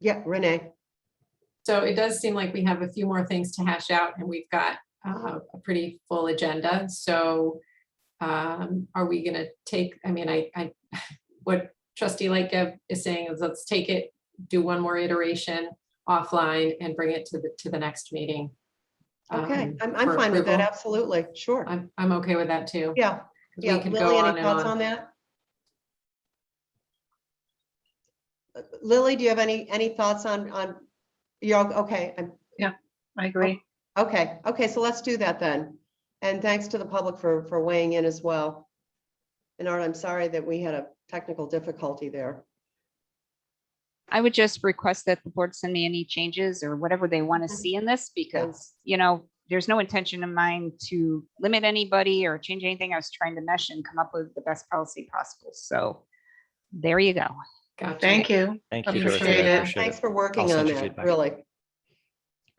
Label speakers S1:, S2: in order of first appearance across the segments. S1: Yeah, Renee,
S2: So it does seem like we have a few more things to hash out and we've got uh, a pretty full agenda. So um, are we going to take, I mean, I, I, what trustee Lightgeb is saying is let's take it, do one more iteration offline and bring it to the, to the next meeting.
S1: okay,
S2: um,
S1: I'm, I'm
S2: for
S1: fine with that,
S2: approval.
S1: absolutely, sure.
S2: I'm, I'm okay with that too.
S1: Yeah,
S2: 'cause we
S1: yeah.
S2: could go
S1: Lily,
S2: on
S1: any
S2: and
S1: thoughts
S2: on.
S1: on that? Uh, Lily, do you have any, any thoughts on, on, you're, all- okay, I'm-
S3: I agree.
S1: okay, okay, so let's do that then. And thanks to the public for, for weighing in as well. And Art, I'm sorry that we had a technical difficulty there.
S3: I would just request that the board send me any changes or whatever they want to
S1: Mm-hmm.
S3: see in this because, you know, there's no intention of mine to limit anybody or change anything. I was trying to mesh and come up with the best policy possible. So there you go.
S2: Oh, Gotcha.
S4: Thank you.
S5: Thank you,
S4: Appreciate
S5: Dorothy. I
S4: it.
S5: appreciate
S1: Thanks
S5: it.
S1: for working
S5: send
S1: on
S5: you
S1: that,
S5: feedback.
S1: really.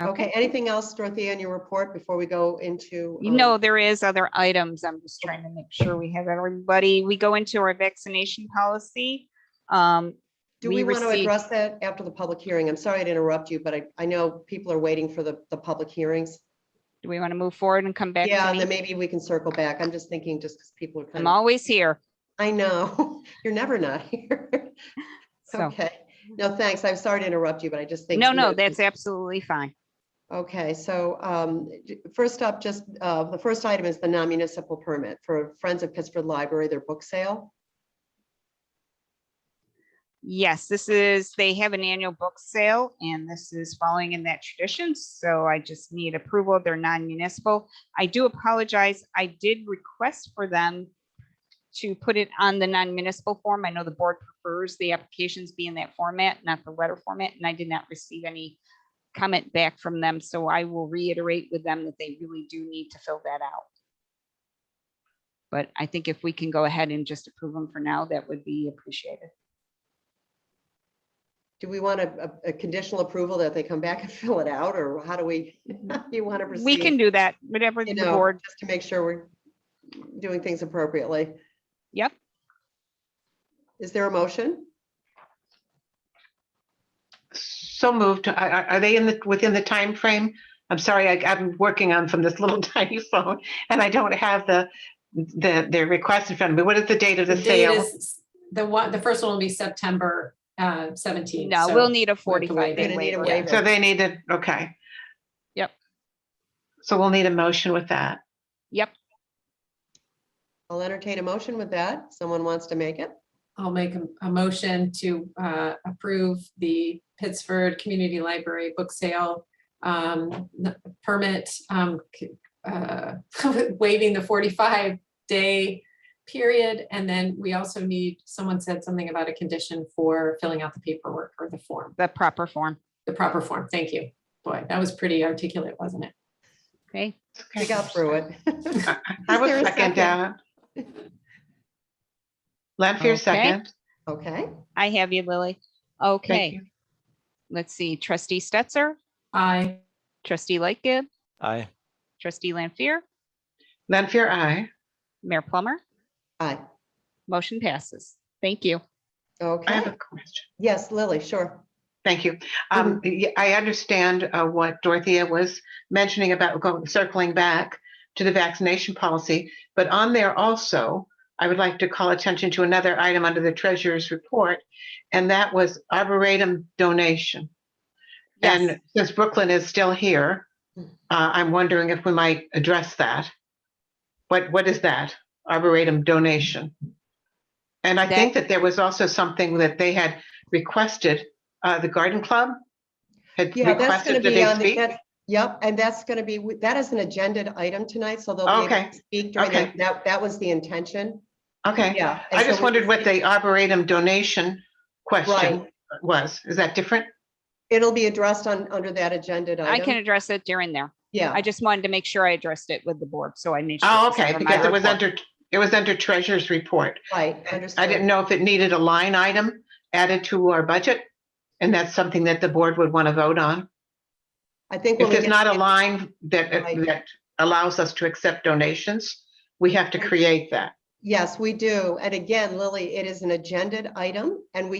S1: Okay, anything else, Dorothea, in your report before we go into?
S3: You
S1: um,
S3: know, there is other items. I'm just trying to make sure we have everybody. We go into our vaccination policy. Um,
S1: Do we
S3: we
S1: want to
S3: received-
S1: address that after the public hearing? I'm sorry to interrupt you, but I, I know people are waiting for the, the public hearings.
S3: do we want to move forward and come back? to
S1: Yeah, and
S3: me?
S1: then maybe we can circle back. I'm just thinking just because people are
S3: I'm
S1: kind of,
S3: always here.
S1: I know, you're never not here.
S3: So,
S1: Okay, no, thanks. I'm sorry to interrupt you, but I just think.
S3: no, no, that's absolutely fine.
S1: Okay, so um, j- first up, just, uh, the first item is the non-municipal permit for Friends of Pittsford Library, their book sale.
S3: Yes, this is, they have an annual book sale and this is following in that tradition. So I just need approval. They're non-municipal. I do apologize. I did request for them to put it on the non-municipal form. I know the board prefers the applications be in that format, not the letter format, and I did not receive any comment back from them. So I will reiterate with them that they really do need to fill that out. But I think if we can go ahead and just approve them for now, that would be appreciated.
S1: Do we want a, a a conditional approval that they come back and fill it out, or how do we, you want to proceed?
S3: We can do that, whatever the
S1: you know,
S3: board,
S1: just to make sure we're doing things appropriately.
S3: Yep.
S1: Is there a motion?
S4: So moved. Are- Are are they in the, within the time frame? I'm sorry, I- I'm working on from this little tiny phone and I don't have the, the, the request in front of me. What is the date of
S2: The
S4: the
S2: date
S4: sale?
S2: is, the one, the first one will be September uh, 17th.
S3: no,
S2: so-
S3: we'll need a
S2: we'll have to wait.
S3: forty-five day
S1: Gonna need a
S3: waiver.
S1: waiver.
S4: So they need to, okay.
S3: Yep.
S4: So we'll need a motion with that.
S3: Yep,
S1: I'll entertain a motion with that. Someone wants to make it?
S2: I'll make a, a motion to uh, approve the Pittsford Community Library book sale um, n- permit, um, c- uh, waiving the 45 day period. And then we also need, someone said something about a condition for filling out the paperwork or the form,
S3: the proper form.
S2: the proper form. Thank you. Boy, that was pretty articulate, wasn't it?
S3: Okay,
S1: We got through it. Is
S4: I
S1: there
S4: will
S1: a
S4: second that. Lanfear
S3: Okay.
S4: second.
S1: Okay,
S3: I have you, Lily.
S4: Thank
S3: Okay,
S4: you.
S3: let's see, trustee Stetser,
S2: Aye.
S3: trustee Lightgib,
S5: Aye.
S3: trustee Lampier,
S4: Lanfear, aye.
S3: Mayor Plummer,
S1: aye.
S3: motion passes. Thank you.
S4: I
S1: Okay,
S4: have a question.
S1: yes, Lily, sure.
S4: Thank you. Um, y- I understand uh, what Dorothea was mentioning about going, circling back to the vaccination policy, but on there also, I would like to call attention to another item under the treasurer's report, and that was arboretum donation.
S3: Yes,
S4: And since Brooklyn is still here,
S1: Hmm.
S4: uh, I'm wondering if we might address that. What, what is that? Arboretum donation? And I think that there was also something that they had requested, uh, the garden club had
S1: Yeah, that's going
S4: requested
S1: to
S4: that
S1: be
S4: they
S1: on, the
S4: speak.
S1: that's- yep, and that's going to be, that is an agenda item tonight, so they'll be able
S4: Okay,
S1: to speak during that.
S4: okay.
S1: That, that was the intention,
S4: Okay,
S1: yeah. and
S4: I
S1: so
S4: just
S1: we-
S4: wondered what the arboretum donation question
S1: Right.
S4: was. Is that different?
S1: It'll be addressed on, under that agenda item. Oh.
S3: I can address it during there.
S1: Yeah.
S3: I just wanted to make sure I addressed it with the board, so I made. sure it
S4: Oh,
S3: was
S4: okay,
S3: under my
S4: because it was
S3: report.
S4: under, it was under treasurer's report.
S1: Right,
S4: I didn't
S1: understood.
S4: know if it needed a line item added to our budget, and that's something that the board would want to vote on.
S1: I think. when
S4: If
S1: we
S4: there's
S1: get-
S4: not a line that,
S1: Right.
S4: that allows us to accept donations, we have to create that.
S1: Yes, we do. And again, Lily, it is an agenda item and we